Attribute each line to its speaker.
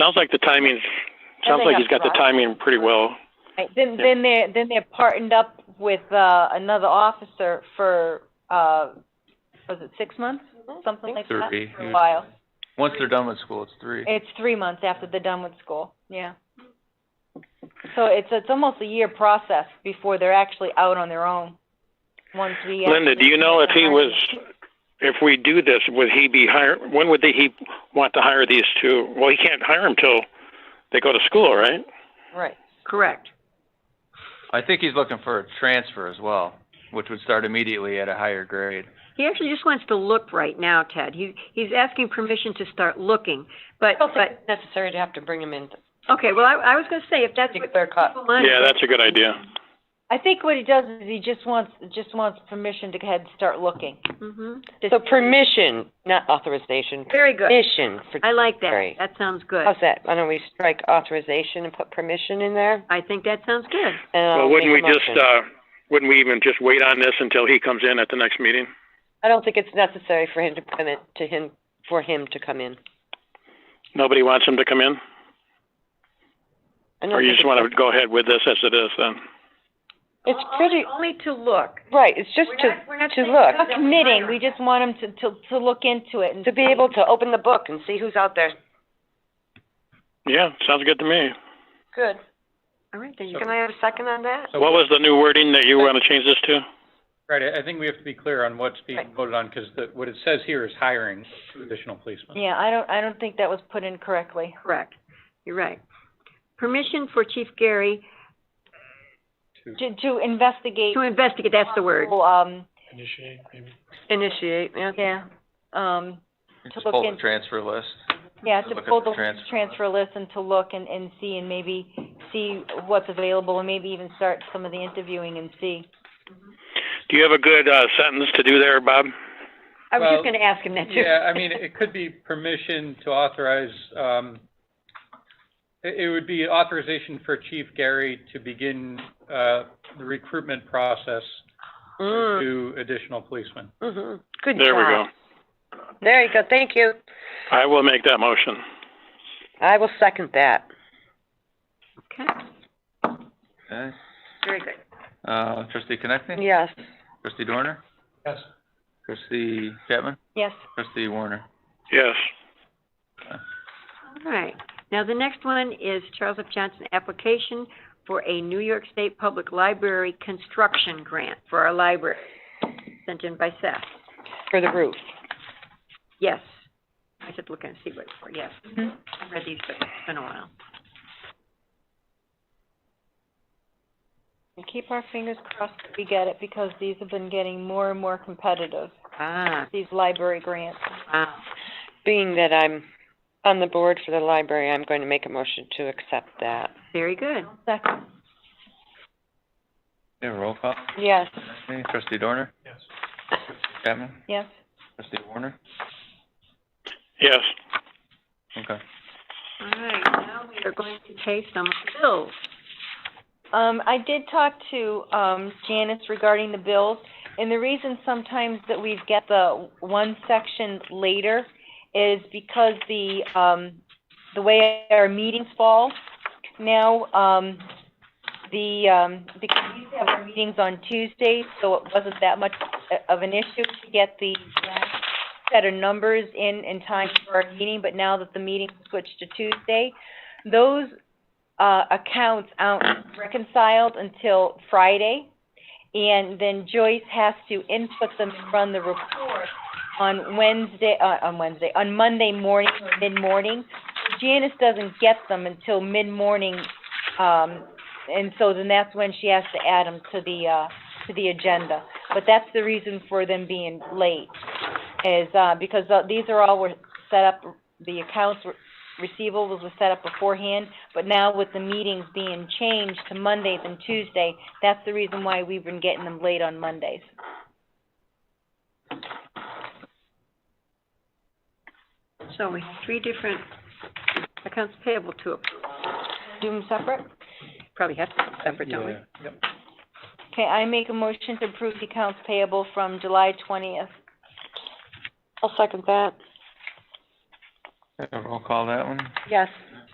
Speaker 1: Sounds like the timing, sounds
Speaker 2: they
Speaker 1: like
Speaker 2: have
Speaker 1: he's got the
Speaker 2: trucks.
Speaker 1: timing pretty well.
Speaker 2: Right, then,
Speaker 1: Yeah.
Speaker 2: then they're, then they're partnered up with, uh, another officer for, uh, was it six months?
Speaker 3: Mm-hmm.
Speaker 2: Something like that,
Speaker 4: Three,
Speaker 2: for a
Speaker 4: usually.
Speaker 2: while.
Speaker 4: Once they're done with school, it's three.
Speaker 2: It's three months after they're done with school, yeah. So it's, it's almost a year process before they're actually out on their own, once we.
Speaker 1: Linda, do you know if he was, if we do this, would he be hire, when would they, he want to hire these two? Well, he can't hire them till they go to school, right?
Speaker 2: Right,
Speaker 5: Correct.
Speaker 4: I think he's looking for a transfer as well, which would start immediately at a higher grade.
Speaker 5: He actually just wants to look right now, Ted. He, he's asking permission to start looking, but,
Speaker 3: I don't think
Speaker 5: but,
Speaker 3: it's necessary to have to bring him in to
Speaker 5: okay, well, I, I was gonna say, if that's what
Speaker 3: get their cut.
Speaker 5: people want.
Speaker 1: Yeah, that's a good idea.
Speaker 2: I think what he does is he just wants, just wants permission to go ahead and start looking.
Speaker 5: Mhm.
Speaker 3: So permission, not authorization,
Speaker 5: Very good.
Speaker 3: permission for,
Speaker 5: I like that.
Speaker 3: Great.
Speaker 5: That sounds good.
Speaker 3: how's that? Why don't we strike authorization and put permission in there?
Speaker 5: I think that sounds good.
Speaker 3: And I'll
Speaker 1: Well, wouldn't we
Speaker 3: make a
Speaker 1: just,
Speaker 3: motion.
Speaker 1: uh, wouldn't we even just wait on this until he comes in at the next meeting?
Speaker 3: I don't think it's necessary for him to come in, to him, for him to come in.
Speaker 1: Nobody wants him to come in?
Speaker 3: I don't
Speaker 1: Or you
Speaker 3: think
Speaker 1: just
Speaker 3: it's
Speaker 1: wanna
Speaker 3: nec-
Speaker 1: go ahead with this as it is then?
Speaker 3: It's pretty,
Speaker 5: Only to look.
Speaker 3: right, it's just
Speaker 5: We're
Speaker 3: to,
Speaker 5: not- we're not
Speaker 3: to
Speaker 5: saying
Speaker 3: look,
Speaker 5: that.
Speaker 2: Not committing, we just want him to, to, to look into it and.
Speaker 3: to be able to open the book and see who's out there.
Speaker 1: Yeah, sounds good to me.
Speaker 3: Good.
Speaker 5: All right, then you
Speaker 3: Can I have a second on that?
Speaker 6: So
Speaker 1: What was the new wording that you wanna change this to?
Speaker 6: Right, I I think we have to be clear on what's being
Speaker 3: Right.
Speaker 6: voted on, because the, what it says here is hiring two additional policemen.
Speaker 2: Yeah, I don't, I don't think that was put in correctly.
Speaker 5: Correct. You're right. Permission for Chief Gary
Speaker 2: To, to investigate.
Speaker 5: to investigate, that's the word.
Speaker 2: possible, Um,
Speaker 3: Initiate, yeah.
Speaker 2: yeah, um,
Speaker 4: You
Speaker 2: To
Speaker 4: Just
Speaker 2: look
Speaker 4: pull the
Speaker 2: in-
Speaker 4: transfer list.
Speaker 2: yeah,
Speaker 4: To
Speaker 2: to
Speaker 4: look at
Speaker 2: pull
Speaker 4: the
Speaker 2: the
Speaker 4: transfer.
Speaker 2: transfer list and to look and, and see and maybe see what's available and maybe even start some of the interviewing and see.
Speaker 1: Do you have a good, uh, sentence to do there, Bob?
Speaker 5: I was
Speaker 6: Well,
Speaker 5: just gonna ask him that too.
Speaker 6: Yeah, I mean, it could be permission to authorize, um, it, it would be authorization for Chief Gary to begin, uh, the recruitment process for
Speaker 3: Mm,
Speaker 6: two additional policemen.
Speaker 3: mhm. Good
Speaker 1: There we go.
Speaker 3: job. There you go, thank you.
Speaker 1: I will make that motion.
Speaker 3: I will second that.
Speaker 5: Okay,
Speaker 4: Okay.
Speaker 5: very good.
Speaker 4: Uh, trustee Connectney?
Speaker 3: Yes.
Speaker 4: Trustee Dorner?
Speaker 6: Yes.
Speaker 4: Trustee Chapman?
Speaker 2: Yes,
Speaker 4: Trustee Warner?
Speaker 1: Yes.
Speaker 5: All right. Now, the next one is Charles F. Johnson application for a New York State Public Library construction grant for our library, sent in by Seth.
Speaker 3: For the roof.
Speaker 5: Yes. I should look and see what, it's for. yes. I read these, but it's been a while.
Speaker 2: and keep our fingers crossed that we get it because these have been getting more and more competitive,
Speaker 5: Ah,
Speaker 2: these library grants.
Speaker 5: wow.
Speaker 3: Being that I'm on the board for the library, I'm going to make a motion to accept that.
Speaker 5: Very good.
Speaker 2: Second,
Speaker 4: Yeah, roll call.
Speaker 3: Yes.
Speaker 4: Connectney? Trustee Dorner?
Speaker 6: Yes.
Speaker 4: Chapman?
Speaker 2: yes,
Speaker 4: Trustee Warner?
Speaker 1: Yes.
Speaker 4: Okay.
Speaker 5: All right, now we are going to pay some bills.
Speaker 2: Um, I did talk to, um, Janice regarding the bills, and the reason sometimes that we get the one section later is because the, um, the way our meetings fall now, um, the, um, because we used to have our meetings on Tuesdays, so it wasn't that much of an issue to get the last set of numbers in, in time for our meeting, but now that the meeting switched to Tuesday, those, uh, accounts aren't reconciled until Friday. And then Joyce has to input them and run the report on Wednesday, uh, on Wednesday, on Monday morning or mid-morning. Janice doesn't get them until mid-morning, um, and so then that's when she has to add them to the, uh, to the agenda. But that's the reason for them being late, is, uh, because uh, these are all were set up, the accounts were, receivables were set up beforehand, but now with the meetings being changed to Mondays and Tuesday, that's the reason why we've been getting them late on Mondays.
Speaker 5: So we have three different accounts payable to, approve.
Speaker 2: Do them separate?
Speaker 5: probably have to be separate, don't we?
Speaker 2: Okay, I make a motion to approve the accounts payable from July twentieth.
Speaker 3: I'll second that.
Speaker 4: Yeah, roll call that one.
Speaker 3: Yes.